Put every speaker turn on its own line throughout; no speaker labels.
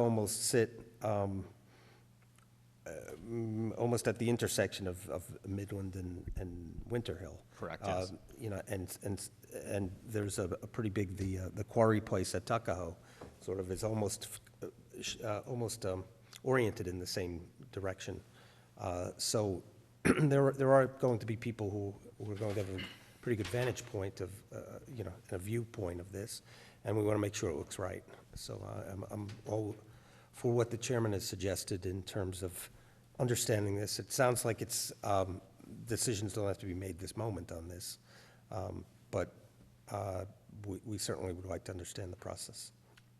almost sit um, um, almost at the intersection of, of Midland and, and Winter Hill.
Correct,
Uh,
yes.
You know, and, and, and there's a, a pretty big, the, uh, the quarry place at Tuckahoe sort of is almost, uh, sh- uh, almost um, oriented in the same direction. Uh, So there, are- there are going to be people who, who are going to have a pretty good vantage point of, uh, you know, a viewpoint of this, and we want to make sure it looks right. So uh, I'm, I'm all for what the chairman has suggested in terms of understanding this. It sounds like it's, um, decisions don't have to be made this moment on this, um, but uh, we we certainly would like to understand the process.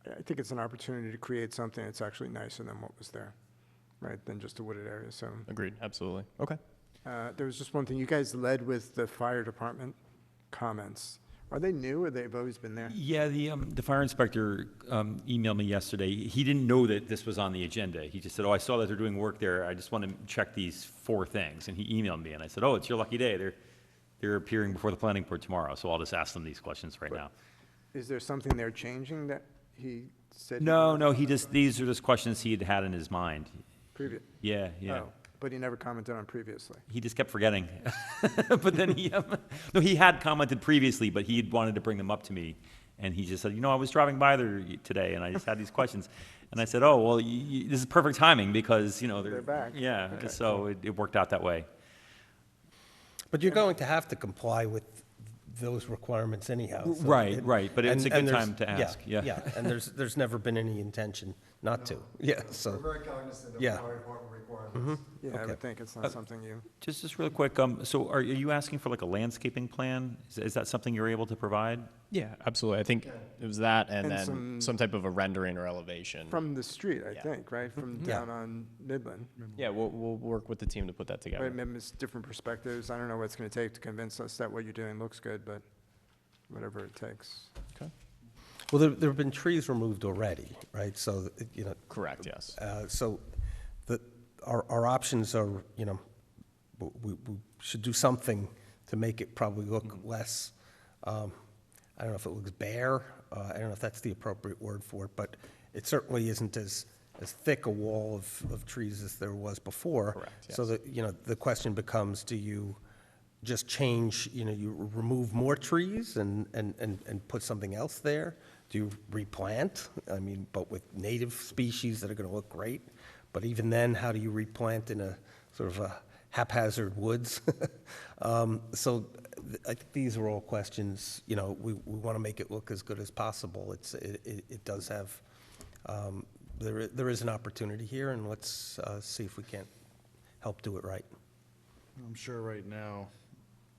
I think it's an opportunity to create something that's actually nicer than what was there, right, than just a wooded area, so.
Agreed, absolutely. Okay.
uh, There was just one thing, you guys led with the fire department comments. Are they new, or they've always been there?
Yeah, the, um, the fire inspector, um, emailed me yesterday. He didn't know that this was on the agenda. He just said, oh, I saw that they're doing work there. I just want to check these four things. And he emailed me and I said, oh, it's your lucky day. They're, they're appearing before the planning board tomorrow. So I'll just ask them these questions right now.
Is there something they're changing that he said? he
No,
wanted
no, he just, these are just questions he had had in his mind.
Previous,
Yeah, yeah.
oh, but he never commented on previously.
He just kept forgetting. but then he, um, no, he had commented previously, but he had wanted to bring them up to me. And he just said, you know, I was driving by there y- today and I just had these questions. And I said, oh, well, y y this is perfect timing because, you know, they're,
They're back.
Yeah,
Okay.
so it, it worked out that way.
But you're going to have to comply with those requirements anyhow. so
Right,
it-
right, but it's
and-
a good
and there's-
time to ask, yeah.
Yeah, and there's, there's never been any intention not to, yeah,
We're
so.
very cognizant of
Yeah.
fire department requirements.
Mm-hmm. Yeah, I
Okay. Uh,
would think it's not something you,
Just, just real quick, um, so are, are you asking for like a landscaping plan? Is, is that something you're able to provide?
Yeah, absolutely. I think it was that and,
And
then
some-
some, type of a rendering or elevation.
from the street, I
Yeah.
think, right, from
Mm-hmm. Yeah. Mm-hmm.
down on Midland.
yeah, we'll, we'll work with the team to put that
Right,
together.
maybe it's different perspectives, I don't know what it's gonna take to convince us that what you're doing looks good, but whatever it takes.
Okay.
Well, there, there have been trees removed already, right? So, you know,
Correct, yes.
Uh, So the, our, our options are, you know, w- we, we should do something to make it probably look less, um, I don't know if it looks bare, uh, I don't know if that's the appropriate word for it, but it certainly isn't as, as thick a wall of, of trees as there was before.
Correct,
So that, you know, the question becomes, do you just change, you know, you r- remove more trees and, and, and, and put something else there? Do you replant? I mean, but with native species that are gonna look great? But even then, how do you replant in a sort of a haphazard woods? Um, So th- I think these are all questions, you know, we, we wanna make it look as good as possible. It's, it, it, it does have, um, there, i- there is an opportunity here and let's, uh, see if we can't help do it right.
I'm sure right now,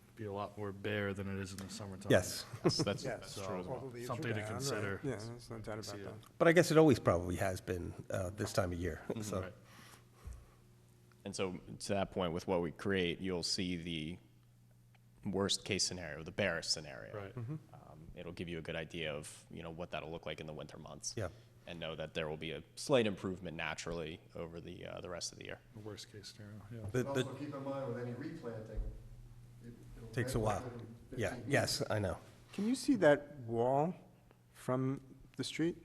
it'd be a lot more bare than it is in the summertime.
Yes.
Yes, that's, that's
So,
true as well.
leaves are
something to
down, right.
consider.
Yeah, there's no doubt about that.
But I guess it always probably has been uh, this time of year,
Mm-hmm.
so.
Right.
And so to that point, with what we create, you'll see the worst case scenario, the barest scenario.
Right.
Um, it'll give you a good idea of you know what that'll look like in the winter months.
Yeah.
And know that there will be a slight improvement naturally over the uh, the rest of the year.
The Worst case scenario, yeah.
the-
Also,
the-
keep in mind with any replanting, it- it'll
Takes a
ramp up
while.
within
Yeah,
15
yes, I know.
Can you see that wall from the street?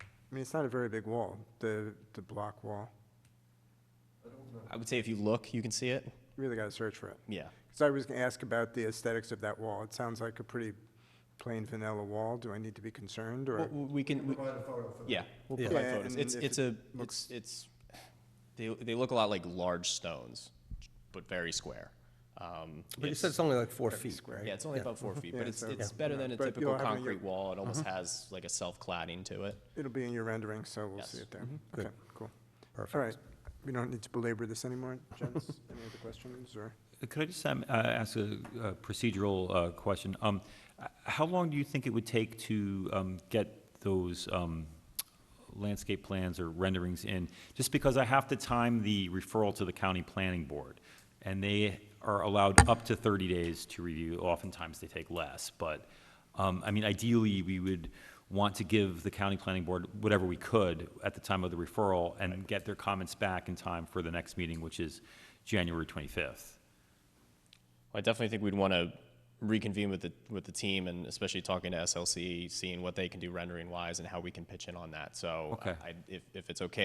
I mean, it's not a very big wall, the, the block wall.
I would say if you look, you can see it.
Really gotta search for it.
Yeah.
Because I was gonna ask about the aesthetics of that wall. It sounds like a pretty plain vanilla wall. Do I need to be concerned or?
Well, we can. we-
Provide a photo for that.
Yeah, we'll
Yeah.
provide
Yeah,
photos.
and
It's
if
it's a it's it's they they look a lot like large stones, but very square. Um,
But you
it's-
said it's only like four feet,
yeah,
right?
it's only about four feet,
Yeah,
but it's
so-
it's better than a
But you'll
typical
have it in your-
concrete wall. It almost
Uh-huh.
has like a self cladding to it.
It'll be in your rendering, so we'll see
Yes.
it there. Okay, cool. All
Perfect.
right. We don't need to belabor this anymore, gents. Any other questions or?
Could I just um, uh, ask a a procedural uh, question? Um, h- How long do you think it would take to um, get those um, landscape plans or renderings in? Just because I have to time the referral to the county planning board, and they are allowed up to 30 days to review. Oftentimes, they take less, but, um, I mean, ideally, we would want to give the county planning board whatever we could at the time of the referral and get their comments back in time for the next meeting, which is January 25th.
I definitely think we'd want to reconvene with the with the team and especially talking to SLC, seeing what they can do rendering wise and how we can pitch in on that. So
Okay.
I, if if it's okay,